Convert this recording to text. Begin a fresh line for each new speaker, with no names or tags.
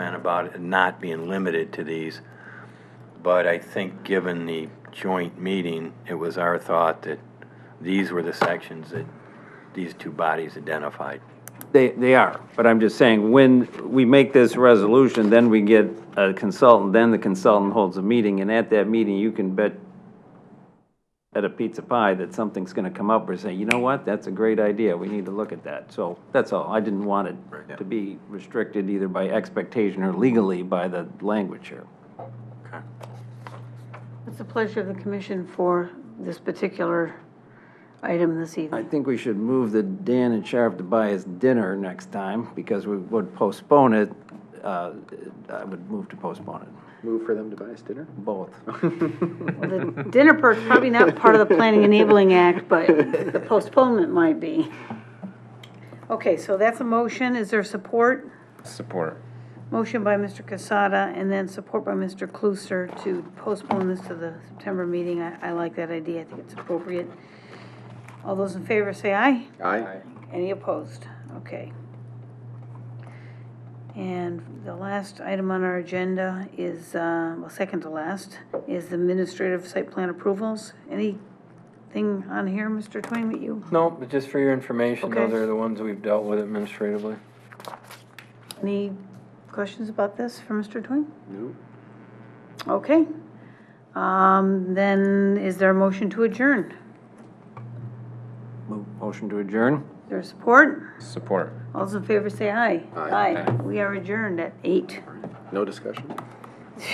about it not being limited to these, but I think given the joint meeting, it was our thought that these were the sections that these two bodies identified.
They, they are, but I'm just saying, when we make this resolution, then we get a consultant, then the consultant holds a meeting, and at that meeting, you can bet at a pizza pie that something's gonna come up or say, you know what, that's a great idea, we need to look at that. So, that's all, I didn't want it to be restricted either by expectation or legally by the language here.
It's the pleasure of the commission for this particular item this
I
evening.
think we should move the Dan and Sheriff to buy us dinner next time, because we would postpone it, uh, I would move to postpone it,
Move for them to buy us dinner?
both.
The dinner perk's probably not part of the Planning Enabling Act, but the postponement might be. Okay, so that's a motion. Is there support?
Support.
Motion by Mr. Casada and then support by Mr. Clusar to postpone this to the September meeting. I, I like that idea. I think it's appropriate. All those in favor say aye.
Aye.
Any opposed? Okay. And the last item on our agenda is, uh, well, second to last, is the administrative site plan approvals. Anything on here, Mr. Twain, that you,
No, but just for your information, those
Okay.
are the ones we've dealt with administratively.
any questions about this for Mr. Twain?
No.
Okay. Um, Then is there a motion to adjourn?
Mo- Motion to adjourn?
Is there support?
Support.
All those in favor say aye.
Aye.
We are adjourned at eight.
No discussion?